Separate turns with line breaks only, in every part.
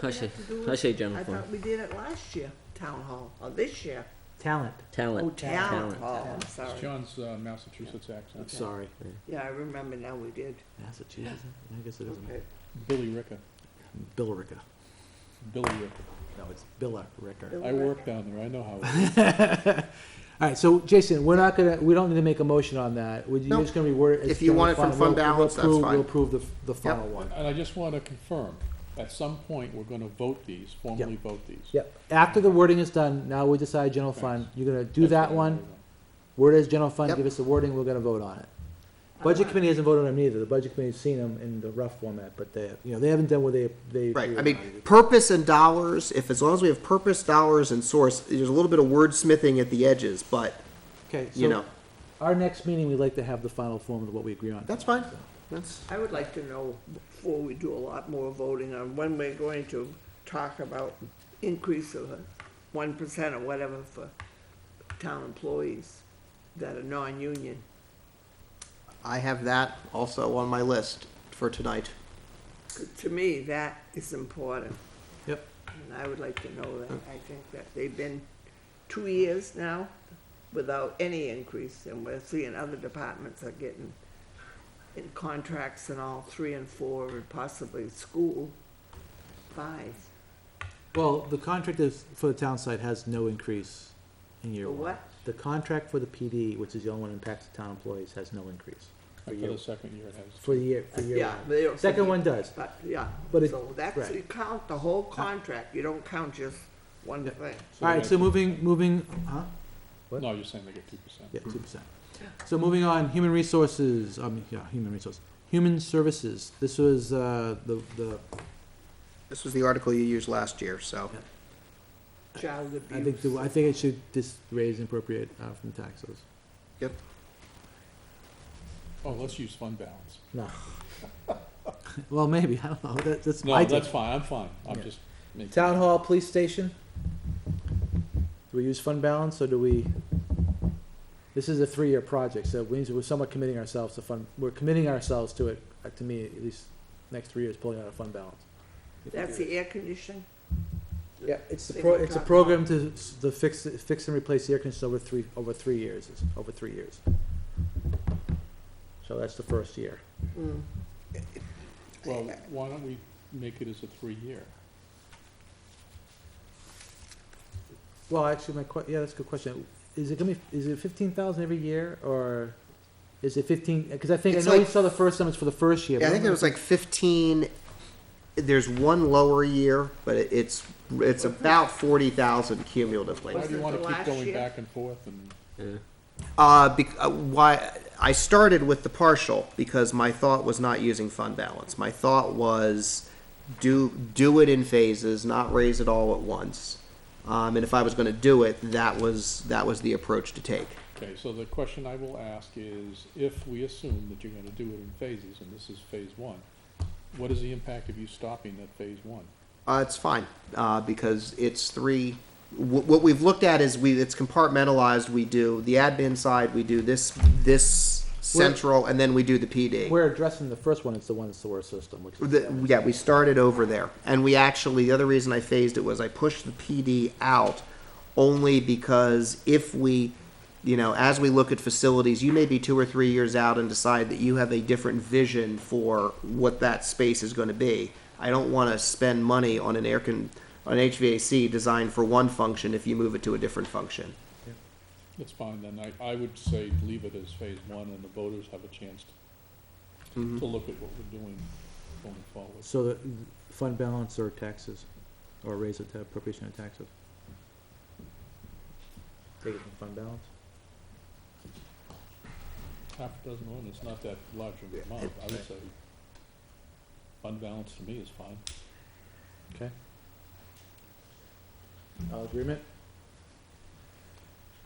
Hush
have
it.
to do it?
Hush it, Jennifer.
I thought we did it last year, town hall, or this year.
Talent.
Talent.
Oh, town
Talent.
hall, I'm
It's
sorry.
John's uh, Massachusetts accent.
Sorry.
Yeah, I remember now we did.
Massachusetts? I guess it isn't.
Okay.
Billy Ricker.
Billerica.
Billy Ricker.
No, it's Billerica.
I work down there. I know how. it is.
All right, so Jason, we're not gonna, we don't need to make a motion on that. We're
Nope.
just gonna reword it. as
If you want it
general
from
fund.
fund
We'll- we'll
balance, that's
approve-
fine.
We'll approve the, the final one.
And I just want to confirm, at some point, we're going to vote these, formally vote these.
Yep. After the wording is done, now we decide general fund. You're gonna do
That's
that
what I'm
one.
voting
Word is general fund,
Yep.
give us the wording, we're gonna vote on it. Budget committee hasn't voted on them either. The budget committee's seen them in the rough format, but they, you know, they haven't done what they, they.
Right,
agree
I mean,
on.
purpose and dollars, if, as long as we have purpose, dollars, and source, there's a little bit of wordsmithing at the edges, but,
Okay,
you
so
know,
our next meeting, we'd like to have the final form of what we agree on.
that's fine. That's,
I would like to know, before we do a lot more voting on when we're going to talk about increase of one percent or whatever for town employees that are non-union.
I have that also on my list for tonight.
To me, that is important.
Yep.
And I would like to know that. I think that they've been two years now without any increase, and we're seeing other departments are getting in contracts and all, three and four, and possibly school, five.
Well, the contract is, for the town site has no increase in year
The
one.
what?
The contract for the PD, which is the only one that impacts the town employees, has no increase for
on. For
year,
the second year, it has.
for the year, for year
Yeah,
one.
they don't-
Second one does.
But, yeah,
But it-
so that's,
right.
you count the whole contract, you don't count just one
Yeah.
thing.
All right, so moving, moving, huh? what?
No, you're saying they get two percent.
Yeah, two percent. So moving on, human resources, um, yeah, human resources, human services. This was, uh, the, the,
This was the article you used last year, so.
Child
I think,
abuse,
the- I think it should just raise and appropriate, uh, from taxes.
Yep.
Oh, let's use fund balance.
No. Well, maybe, I don't know, that, that's my
No,
take.
that's fine. I'm fine. I'm
Yeah.
just making.
Town hall, police station? Do we use fund balance, or do we? This is a three-year project, so we, we're somewhat committing ourselves to fund, we're committing ourselves to it, uh, to me, at least, next three years, pulling out a fund balance. If we
that's
do it.
the air conditioning?
Yeah, it's a
Thing
pro,
we
it's a
talked
program to, s- to fix, fix and replace the air conditioner over three, over three years, it's over three years. So that's the first year.
Mm.
Well, why don't we make it as a three-year?
Well, actually, my que, yeah, that's a good question. Is it gonna be, is it fifteen thousand every year, or is it fifteen, because I think, I
It's
know we
like-
saw the first time, it's for the first year.
Yeah, I
but
think it was like fifteen, there's one lower year, but it- it's, it's about forty thousand cumulatively.
Why do you
it
want
the
to keep
last
going
year?
back and forth and?
Yeah.
Uh, bec- uh, why, I started with the partial because my thought was not using fund balance. My thought was do, do it in phases, not raise it all at once. Um, and if I was gonna do it, that was, that was the approach to take.
Okay, so the question I will ask is, if we assume that you're gonna do it in phases, and this is phase one, what is the impact of you stopping at phase one?
Uh, it's fine, uh, because it's three, wh- what we've looked at is we, it's compartmentalized, we do the admin side, we do this, this central, and then we do the PD.
We're addressing the first one, it's the one that's the worst system, which is.
The, yeah, we started over there, and we actually the other reason I phased it was I pushed the PD out only because if we, you know, as we look at facilities, you may be two or three years out and decide that you have a different vision for what that space is going to be. I don't want to spend money on an air con, on HVAC designed for one function if you move it to a different function.
That's fine, then I, I would say leave it as phase one, and the voters have a chance to, to look at what we're doing going forward.
So the fund balance or taxes, or raise it to appropriation of taxes? Take it from fund balance?
Half a dozen one, it's not that large of an amount, I would say fund balance to me is fine.
Okay. All agreement?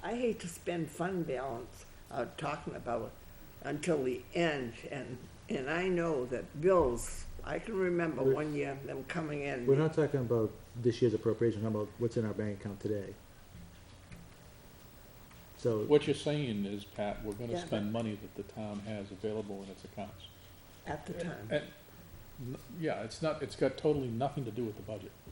Mm-hmm.
I hate to spend fund balance, uh, talking about it until the end, and, and I know that bills, I can remember
We're-
one year them coming in.
We're not talking about this year's appropriation, we're talking about what's in our bank account today. So.
What you're saying is, Pat, we're
Yeah,
gonna
but-
spend money that the town has available in its accounts.
At the time.
And, n- yeah, it's not, it's got totally nothing to do with the budget.